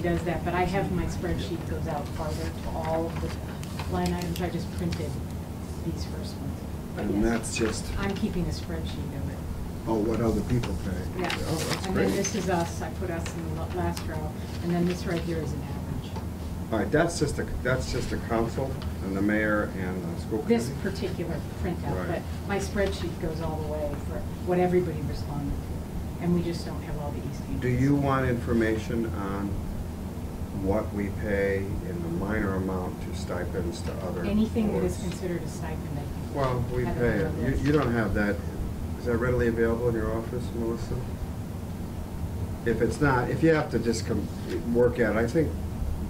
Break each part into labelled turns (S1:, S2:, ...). S1: does that, but I have my spreadsheet goes out farther to all of the line items, I just printed these first ones. But
S2: And
S1: yes,
S2: that's just,
S1: I'm keeping a spreadsheet of it,
S2: oh, what other people pay.
S1: yeah.
S2: Oh, that's
S1: And then this
S2: great.
S1: is us, I put us in the la- last row, and then this right here is an average,
S2: All right, that's just a, that's just a council and the mayor and the school committee.
S1: this particular printout, but
S2: Right.
S1: my spreadsheet goes all the way for what everybody responded to, and we just don't have all the East Hampton.
S2: Do you want information on what we pay in the minor amount to stipends to other
S1: Anything that is
S2: boards?
S1: considered a stipend, I think.
S2: Well, we
S1: have
S2: pay it.
S1: on the
S2: You,
S1: list.
S2: you don't have that. Is that readily available in your office, Melissa? If it's not, if you have to just come, work at it, I think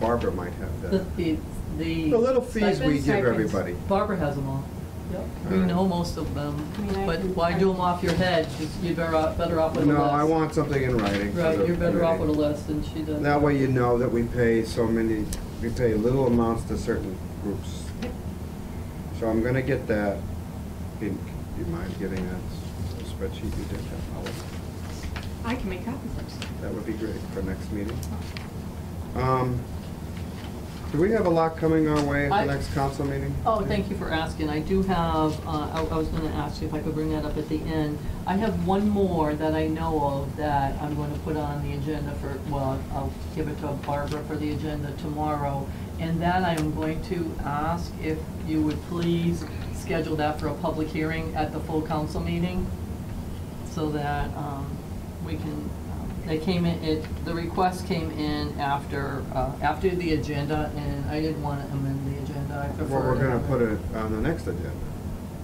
S2: Barbara might have
S3: The
S2: that.
S3: fees, the.
S2: The little fees we
S1: Stipends,
S2: give
S1: stipends.
S2: everybody.
S3: Barbara has them all. We
S2: Alright.
S3: know most of them,
S1: I mean, I
S3: but
S1: can-
S3: why do them off your head? You're better off, better off with a list.
S2: No, I want something in writing. for the
S3: Right, you're better off with a
S2: committee.
S3: list than she does.
S2: That way you know that we pay so many, we pay little amounts to certain groups. So I'm gonna get that. In- Do you mind getting that spreadsheet you did have? I'll-
S1: I can make copies of it.
S2: That would be great for next meeting. Um, Do we have a lot coming our way at
S3: I-
S2: the next council meeting?
S3: Oh, thank you for asking. I do have, uh, I I was going to ask you if I could bring that up at the end. I have one more that I know of that I'm going to put on the agenda for, well, I'll give it to Barbara for the agenda tomorrow. And that I'm going to ask if you would please schedule that for a public hearing at the full council meeting so that um, we can, um, they came in, it, the request came in after, uh, after the agenda, and I didn't want to amend the agenda, I
S2: Well,
S3: prefer.
S2: we're gonna put it on the next agenda.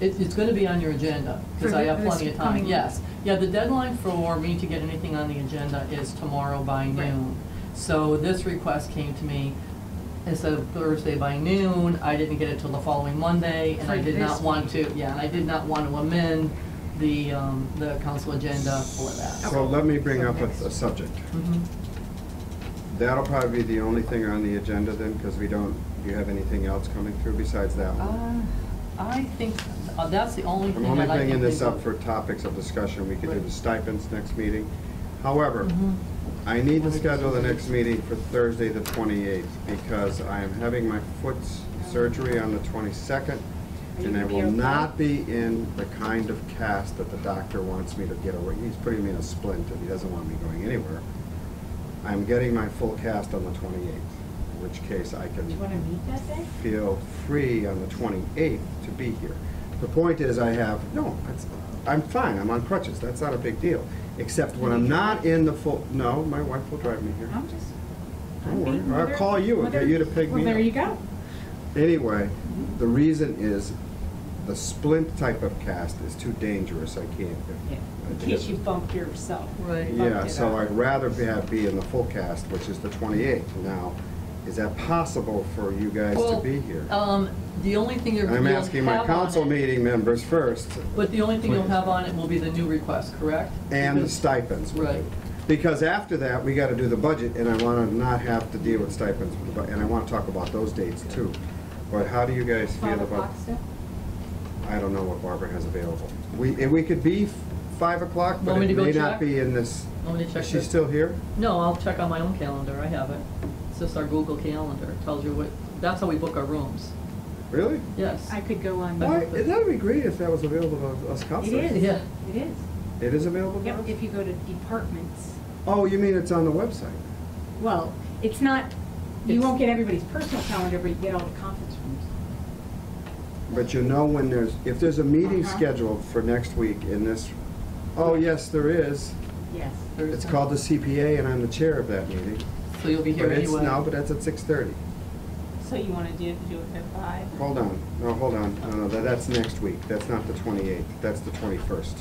S3: It, it's gonna be on your agenda, because
S1: For
S3: I have
S1: this
S3: plenty of time,
S1: coming-
S3: yes. Yeah, the deadline for me to get anything on the agenda is tomorrow by
S1: Right.
S3: noon. So this request came to me, instead of Thursday by noon, I didn't get it till the following Monday, and I
S1: For
S3: did
S1: this
S3: not want to, yeah, and I did not want to amend the, um, the council agenda for that.
S2: So let me bring
S1: So
S2: up a
S1: next.
S2: a subject.
S3: Mhm.
S2: That'll probably be the only thing on the agenda then, because we don't, do you have anything else coming through besides that one?
S3: Uh, I think, uh, that's the only thing
S2: I'm
S3: that I
S2: only
S3: can
S2: bringing this
S3: think
S2: up
S3: of.
S2: for topics of discussion, we could do
S3: Right.
S2: the stipends next meeting. However,
S3: Mhm.
S2: I need to schedule the next meeting for Thursday, the 28th, because I am having my foot s- surgery on the 22nd,
S1: you
S2: and I
S1: gonna be
S2: will
S1: okay?
S2: not be in the kind of cast that the doctor wants me to get away. He's putting me in a splint, and he doesn't want me going anywhere. I'm getting my full cast on the 28th, in which case I can
S1: Do you want to meet that day?
S2: feel free on the 28th to be here. The point is, I have, no, that's, I'm fine, I'm on crutches, that's not a big deal. Except when I'm not in the full, no, my wife will drive me here.
S1: I'm just.
S2: Don't
S1: I'm
S2: worry,
S1: being
S2: I'll
S1: mother-
S2: call you and get
S1: mother-
S2: you to pick me
S1: Well, there
S2: up.
S1: you go.
S2: Anyway, the reason is, the splint type of cast is too dangerous, I can't. I
S1: In
S2: think
S1: case
S2: it's-
S1: you bump yourself.
S3: Right.
S1: bumped
S2: Yeah,
S1: it
S2: so
S1: up.
S2: I'd rather be, have- be in the full cast, which is the 28th. Now, is that possible for you guys to
S3: Well,
S2: be here?
S3: Um, the only thing you're, you'll
S2: I'm
S3: have
S2: asking my
S3: on
S2: council
S3: it-
S2: meeting members first,
S3: But the only thing you'll
S2: Please.
S3: have on it will be the new request, correct?
S2: and the
S3: Because-
S2: stipends.
S3: Right.
S2: Because after that, we gotta do the budget, and I wanna not have to deal with stipends, with the bu- and I wanna talk about those dates too. But how do you guys feel
S1: Five
S2: about?
S1: o'clock still?
S2: I don't know what Barbara has available. We, and we could be f- five o'clock, but
S3: Want me
S2: it
S3: to go
S2: may not
S3: check?
S2: be in this.
S3: Want me to check
S2: Is she
S3: this?
S2: still here?
S3: No, I'll check on my own calendar, I have it. It's just our Google Calendar, It tells you what, that's how we book our rooms,
S2: Really?
S3: yes.
S1: I could go on.
S2: Why, that'd be great if that was available to us
S1: It
S2: council.
S1: is,
S3: Yeah.
S1: it is.
S2: It is available to
S1: Yep,
S2: us?
S1: if you go to departments,
S2: Oh, you mean it's on the website?
S1: well, it's not, you
S3: It's-
S1: won't get everybody's personal calendar, but you get all the conference rooms.
S2: But you know when there's, if there's a meeting
S1: Uh-huh.
S2: scheduled for next week in this, oh, yes, there is.
S1: Yes.
S2: It's called the CPA, and I'm the chair of that meeting.
S3: So you'll be here
S2: But it's-
S3: anyway.
S2: No, but that's at six thirty.
S1: So you want to do, do it at five?
S2: Hold on, no, hold on, no, no, that- that's next week, that's not the twenty-eighth, that's the twenty-first.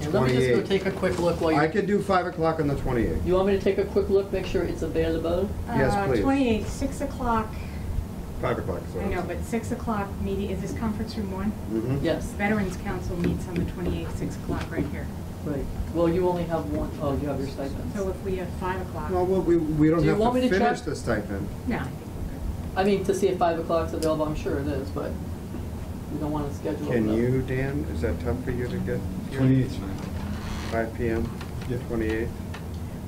S3: And let me just go
S2: 28th.
S3: take a quick look while
S2: I
S3: you,
S2: could do five o'clock on the twenty-eighth.
S3: you want me to take a quick look, make sure it's available?
S2: Yes, please.
S1: Uh, Twenty-eight, six o'clock,
S2: Five o'clock, so.
S1: I know, but six o'clock meeting, is this conference room one?
S2: Mhm.
S3: Yes,
S1: Veterans Council meets on the twenty-eighth, six o'clock right here.
S3: right. Well, you only have one, oh, you have your stipends.
S1: So if we have five o'clock,
S2: Well,
S1: no,
S2: we, we don't
S3: Do you
S2: have
S3: want me
S2: to
S3: to
S2: finish
S3: check?
S2: the stipend.
S1: I think we're good.
S3: I mean, to see if five o'clock's available, I'm sure it is, but you don't want to schedule it.
S2: Can
S3: though.
S2: you, Dan, is that tough for you to get? here?
S4: Twenty-eighth, fine.
S2: Five PM,
S4: Yeah.
S2: twenty-eighth?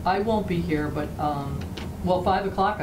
S3: I won't be here, but um, Well, five o'clock